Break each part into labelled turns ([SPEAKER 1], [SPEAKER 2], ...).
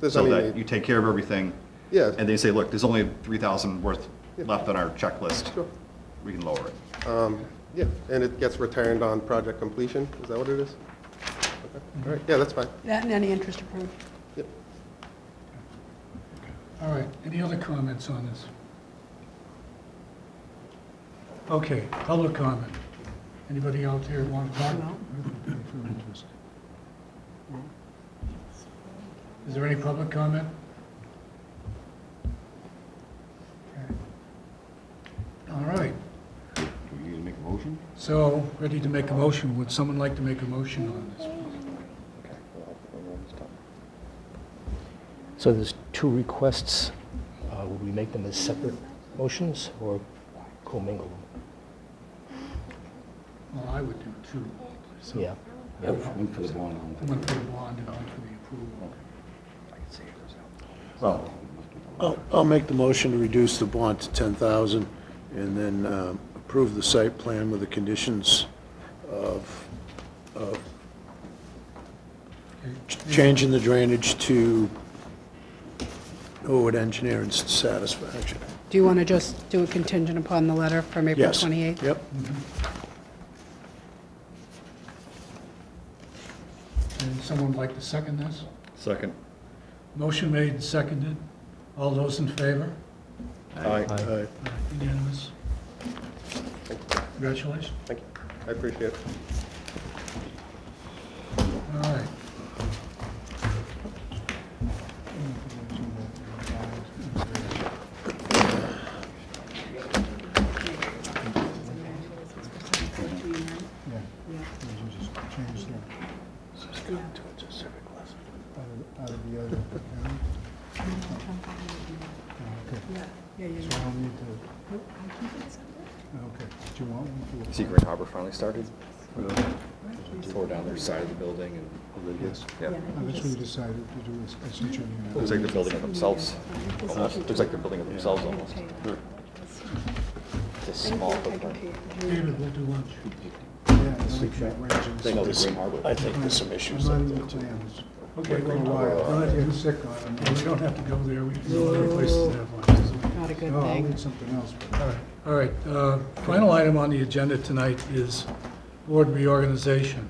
[SPEAKER 1] There's
[SPEAKER 2] so
[SPEAKER 1] any
[SPEAKER 2] that
[SPEAKER 1] need.
[SPEAKER 2] you take care of everything.
[SPEAKER 1] Yeah.
[SPEAKER 2] And they say, look, there's only 3,000 worth left on our checklist.
[SPEAKER 1] Sure.
[SPEAKER 2] We can lower it.
[SPEAKER 1] um, Yeah, and it gets returned on project completion, is that what it is? Okay. All right, yeah, that's fine.
[SPEAKER 3] That and any interest approved.
[SPEAKER 1] Yep.
[SPEAKER 4] All right, any other comments on this? Okay, public comment. Anybody out there want to talk?
[SPEAKER 3] No.
[SPEAKER 4] Is there any public comment? Okay. All right,
[SPEAKER 5] Do we need to make a motion?
[SPEAKER 4] so ready to make a motion. Would someone like to make a motion on this?
[SPEAKER 6] So there's two requests. Uh, Would we make them as separate motions or commingle them?
[SPEAKER 4] Well, I would do two.
[SPEAKER 6] Yeah.
[SPEAKER 5] Yeah. One for the bond, one for the...
[SPEAKER 4] One for the bond and one for the approval.
[SPEAKER 5] Well,
[SPEAKER 7] I'll, I'll make the motion to reduce the bond to 10,000 and then um, approve the site plan with the conditions of, of ch- changing the drainage to Norwood Engineering's satisfaction.
[SPEAKER 3] Do you want to just do a contingent upon the letter from April
[SPEAKER 7] Yes.
[SPEAKER 3] 28th?
[SPEAKER 7] Yep.
[SPEAKER 4] And someone like to second this?
[SPEAKER 2] Second.
[SPEAKER 4] Motion made and seconded. All those in favor?
[SPEAKER 7] Aye.
[SPEAKER 4] Unanimous. Congratulations.
[SPEAKER 1] Thank you, I appreciate it.
[SPEAKER 4] All right.
[SPEAKER 3] Yeah, yeah, yeah.
[SPEAKER 4] oh,
[SPEAKER 2] Secret Harbor finally started. Tore down their side of the building and. Yes.
[SPEAKER 4] Oh,
[SPEAKER 2] Yeah. Looks like they're building it themselves, almost. Looks like they're building it themselves almost. It's a small footprint.
[SPEAKER 4] David, we'll do lunch.
[SPEAKER 7] I think there's- I think there's some issues.
[SPEAKER 4] Okay, well,
[SPEAKER 7] uh,
[SPEAKER 4] go ahead. You don't have to go there. We can go other places to have lunch.
[SPEAKER 3] Not a good thing.
[SPEAKER 4] All right. All right, uh, final item on the agenda tonight is board reorganization.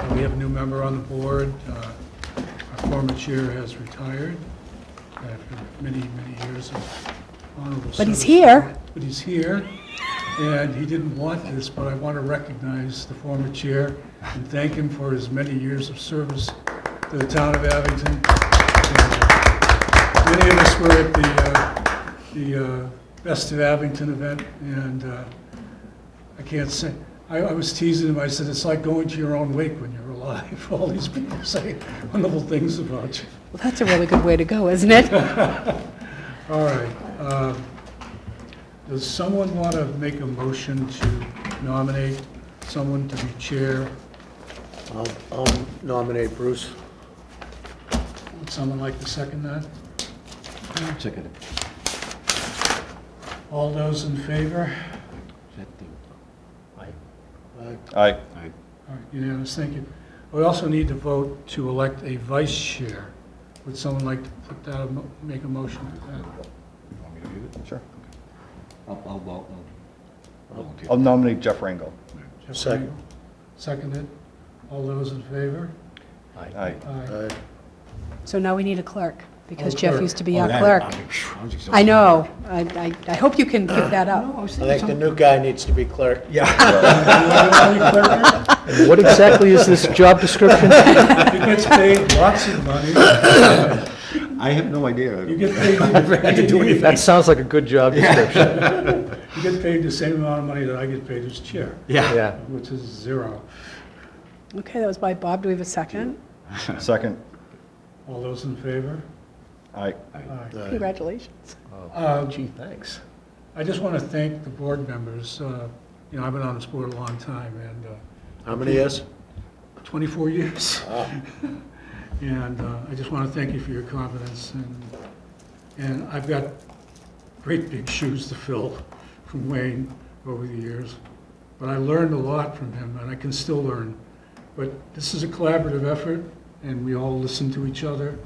[SPEAKER 4] Uh, We have a new member on the board. Uh, Our former chair has retired after many, many years of honorable service.
[SPEAKER 3] But he's here.
[SPEAKER 4] But he's here, and he didn't want this, but I want to recognize the former chair and thank him for his many years of service to the town of Abington. And Many of us were at the, uh, the uh, Best of Abington event, and uh, I can't say, I, I was teasing him, I said, it's like going to your own wake when you're alive. All these people say wonderful things about you.
[SPEAKER 3] Well, that's a really good way to go, isn't it?
[SPEAKER 4] All right. uh, Does someone want to make a motion to nominate someone to be chair?
[SPEAKER 7] I'll I'll nominate Bruce.
[SPEAKER 4] Would someone like to second that?
[SPEAKER 5] second.
[SPEAKER 4] All those in favor?
[SPEAKER 7] Aye.
[SPEAKER 2] Aye.
[SPEAKER 4] All right, unanimous, thank you. We also need to vote to elect a vice chair. Would someone like to put that, a mo- make a motion for that?
[SPEAKER 2] Sure.
[SPEAKER 5] I'll, I'll, vol- I'll volunteer.
[SPEAKER 2] I'll nominate Jeff Rangel.
[SPEAKER 4] Jeff
[SPEAKER 7] Second.
[SPEAKER 4] Frankel? Seconded. All those in favor?
[SPEAKER 2] Aye.
[SPEAKER 4] Aye.
[SPEAKER 7] Aye.
[SPEAKER 3] So now we need a clerk, because
[SPEAKER 4] Oh,
[SPEAKER 3] Jeff
[SPEAKER 4] clerk.
[SPEAKER 3] used to be our clerk. I know. I, I, I hope you can give that up.
[SPEAKER 7] I think the new guy needs to be clerk.
[SPEAKER 6] What exactly is this job description?
[SPEAKER 4] He gets paid lots of money.
[SPEAKER 5] I have no idea.
[SPEAKER 4] You get paid, you
[SPEAKER 6] That sounds like a good job description.
[SPEAKER 4] get paid the same amount of money that I get paid as chair,
[SPEAKER 6] Yeah.
[SPEAKER 4] which is zero.
[SPEAKER 3] Okay, that was by Bob. Do we have a second?
[SPEAKER 2] Second.
[SPEAKER 4] All those in favor?
[SPEAKER 2] Aye.
[SPEAKER 4] Aye.
[SPEAKER 3] Congratulations.
[SPEAKER 4] Uh,
[SPEAKER 6] Gee, thanks.
[SPEAKER 4] I just want to thank the board members. Uh, You know, I've been on this board a long time, and uh,
[SPEAKER 7] How many years?
[SPEAKER 4] 24 years. And uh, I just want to thank you for your confidence, and, and I've got great big shoes to fill from Wayne over the years, but I learned a lot from him, and I can still learn. But this is a collaborative effort, and we all listen to each other,